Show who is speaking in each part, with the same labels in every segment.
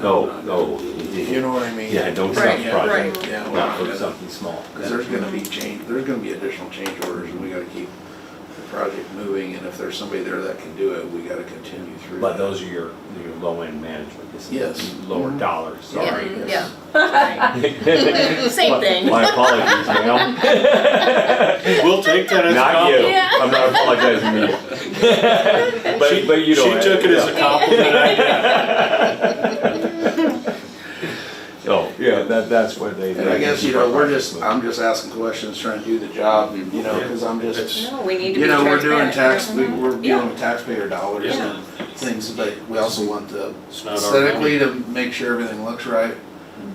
Speaker 1: No, no.
Speaker 2: You know what I mean?
Speaker 1: Yeah, don't stop
Speaker 3: Right, yeah,
Speaker 1: project.
Speaker 3: right.
Speaker 2: Yeah, well,
Speaker 1: Not for something small.
Speaker 2: Because there's gonna be change, there's gonna be additional change orders, and we gotta keep the project moving, and if there's somebody there that can do it, we gotta continue through.
Speaker 1: But
Speaker 2: that.
Speaker 1: those are your, your low-end management, this
Speaker 2: Yes.
Speaker 1: is lower dollars, sorry.
Speaker 3: Mm-hmm. Yeah,
Speaker 2: yes.
Speaker 3: yeah. Same thing.
Speaker 1: My apologies, ma'am.
Speaker 4: We'll take that as a
Speaker 1: Not you,
Speaker 4: compliment.
Speaker 3: Yeah.
Speaker 1: I'm not apologizing to you. But, but you don't.
Speaker 4: She took it as a compliment. I did.
Speaker 1: So, yeah, that, that's what they.
Speaker 2: And I guess, you know, we're just, I'm just asking questions, trying to do the job, and, you know, because I'm just,
Speaker 3: No, we need to be
Speaker 2: you know, we're doing
Speaker 3: transparent.
Speaker 2: tax, we- we're
Speaker 3: Yeah.
Speaker 2: dealing with taxpayer dollars
Speaker 3: Yeah.
Speaker 2: and things, but we also want the
Speaker 4: It's not our money.
Speaker 2: aesthetically to make sure everything looks right.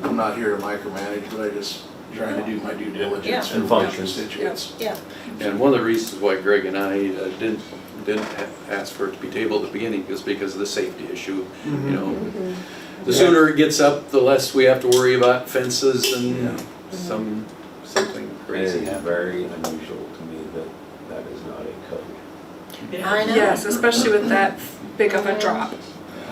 Speaker 2: I'm not here to micromanage, but I just trying to do my due diligence for
Speaker 1: And
Speaker 2: my
Speaker 1: functions.
Speaker 2: constituents.
Speaker 3: Yeah,
Speaker 5: And one of the reasons why Greg and I uh, didn't, didn't ha- ask for it to be tabled at the beginning is because of the safety issue, you know.
Speaker 3: Mm-hmm.
Speaker 5: The sooner it gets up, the less we have to worry about fences and some, something
Speaker 1: It is
Speaker 5: crazy happening.
Speaker 1: very unusual to me that that is not a code.
Speaker 3: I know.
Speaker 6: Yes, especially with that big of a drop.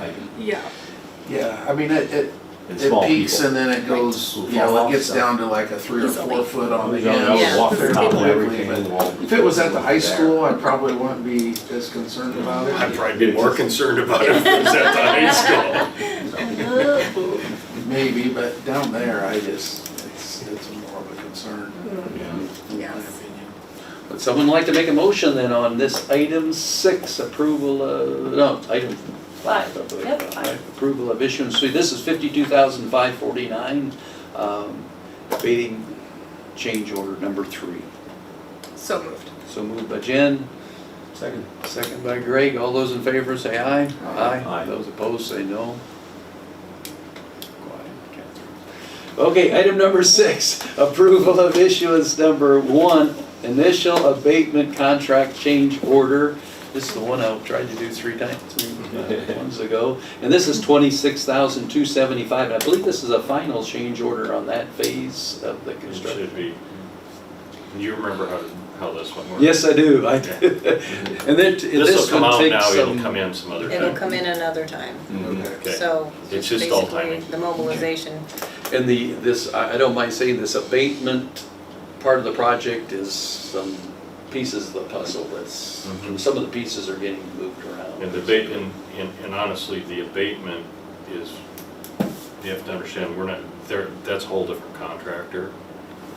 Speaker 1: I-
Speaker 6: Yeah.
Speaker 2: Mm-hmm. Yeah, I mean, it, it,
Speaker 1: And
Speaker 2: it
Speaker 1: small
Speaker 2: peaks
Speaker 1: people.
Speaker 2: and then it goes,
Speaker 1: Who
Speaker 2: you know,
Speaker 1: fall
Speaker 2: it gets
Speaker 1: off
Speaker 2: down to like a three or
Speaker 3: Easily.
Speaker 2: four foot on the
Speaker 1: You know, I would
Speaker 3: Yeah.
Speaker 2: end.
Speaker 1: walk the
Speaker 2: Fairly
Speaker 1: top of
Speaker 2: quickly,
Speaker 1: everything and
Speaker 2: but
Speaker 1: walk-
Speaker 2: If it was at the high
Speaker 1: there.
Speaker 2: school, I probably wouldn't be as concerned about
Speaker 4: I'd
Speaker 2: it.
Speaker 4: probably be more concerned about it if it was at the high school.
Speaker 2: Maybe, but down there, I just, it's, it's more of a concern. in my
Speaker 3: Yes.
Speaker 2: opinion.
Speaker 5: Would someone like to make a motion then on this item six, approval of, no, item five.
Speaker 3: Yep, five.
Speaker 5: Approval of issuance, so this is fifty-two thousand five forty-nine, um, abating change order number three.
Speaker 6: So moved.
Speaker 5: So moved by Jen,
Speaker 1: Second.
Speaker 5: second by Greg. All those in favor say aye.
Speaker 1: Aye.
Speaker 5: Those opposed say no. Quiet, Catherine. Okay, item number six, approval of issuance number one, initial abatement contract change order. This is the one I tried to do three times, maybe, uh, ones ago. And this is twenty-six thousand two seventy-five. I believe this is a final change order on that phase of the
Speaker 4: It
Speaker 5: construction.
Speaker 4: should be. You remember how, how this one works?
Speaker 5: Yes, I do, I do. And then, t-
Speaker 4: This'll
Speaker 5: this
Speaker 4: come
Speaker 5: one
Speaker 4: out
Speaker 5: takes
Speaker 4: now, it'll come
Speaker 5: some,
Speaker 4: in some other
Speaker 3: it'll
Speaker 4: time.
Speaker 3: come in another time,
Speaker 1: Mhm.
Speaker 2: Okay.
Speaker 3: so.
Speaker 4: It's
Speaker 3: just
Speaker 4: just all
Speaker 3: basically
Speaker 4: timing.
Speaker 3: The mobilization,
Speaker 5: and the, this, I I don't mind saying this abatement part of the project is some pieces of the puzzle that's,
Speaker 4: Mhm.
Speaker 5: some of the pieces are getting moved around.
Speaker 4: And the abate, and, and- and honestly, the abatement is, you have to understand, we're not, there, that's a whole different contractor.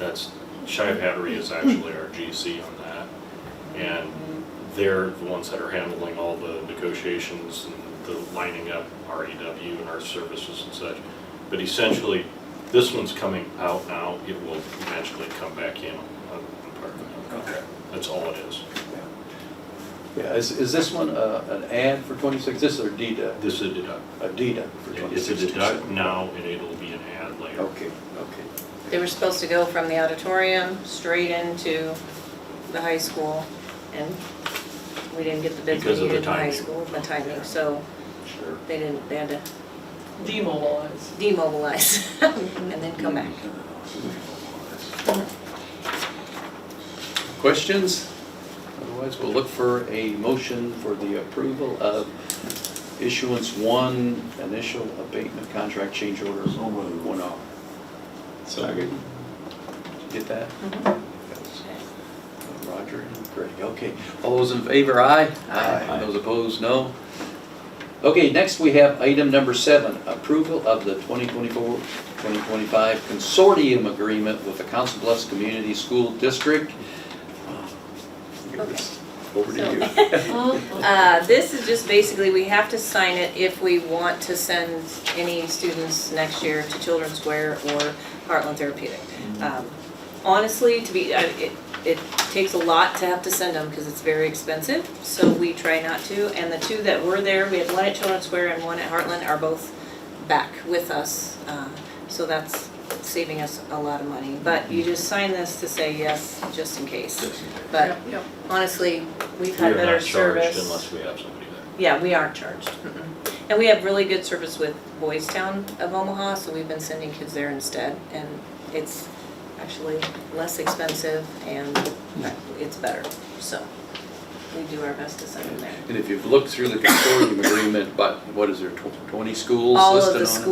Speaker 4: That's, Shive Hattery is actually our GC on that. And they're the ones that are handling all the negotiations and the lining up our EW and our services and such. But essentially, this one's coming out now, it will magically come back in on on part of the contract. That's all it is.
Speaker 5: Yeah, is, is this one uh, an ad for twenty-six, this is a deduct,
Speaker 4: This is uh, a deduct.
Speaker 5: a deduct for
Speaker 4: It's
Speaker 5: twenty-six?
Speaker 4: a deduct now and it'll be an ad later.
Speaker 5: Okay, okay.
Speaker 3: they were supposed to go from the auditorium straight into the high school, and we didn't get the bids we
Speaker 4: Because of the
Speaker 3: needed in the high
Speaker 4: timing.
Speaker 3: school, the timing, so
Speaker 5: Sure.
Speaker 3: they didn't, they had to
Speaker 6: Demobilize.
Speaker 3: demobilize and then come back.
Speaker 4: Mm-hmm.
Speaker 5: Questions? Otherwise, we'll look for a motion for the approval of issuance one, initial abatement contract change order,
Speaker 2: So moved.
Speaker 5: one off. Second. Get that? Roger and Greg, okay. All those in favor, aye?
Speaker 1: Aye.
Speaker 5: Those opposed, no? Okay, next we have item number seven, approval of the 2024-2025 consortium agreement with the Council Bluffs Community School District. Uh, Over to you.
Speaker 3: Uh, This is just basically, we have to sign it if we want to send any students next year to Children's Square or Heartland Therapeutic. Um, Honestly, to be, I- it, it takes a lot to have to send them because it's very expensive, so we try not to. And the two that were there, we had one at Children's Square and one at Heartland, are both back with us. uh, So that's saving us a lot of money. But you just sign this to say yes, just in case. But
Speaker 6: Yep, yep.
Speaker 3: honestly, we've
Speaker 4: We
Speaker 3: had
Speaker 4: are
Speaker 3: better
Speaker 4: not charged
Speaker 3: service.
Speaker 4: unless we have somebody there.
Speaker 3: Yeah, we aren't charged. Mm-mm. And we have really good service with Boys Town of Omaha, so we've been sending kids there instead. And it's actually less expensive and it's better, so we do our best to send them there.
Speaker 5: And if you've looked through the consortium agreement, but what is there, tw- 20 schools
Speaker 3: All of
Speaker 5: listed on
Speaker 3: the
Speaker 5: it?
Speaker 3: schools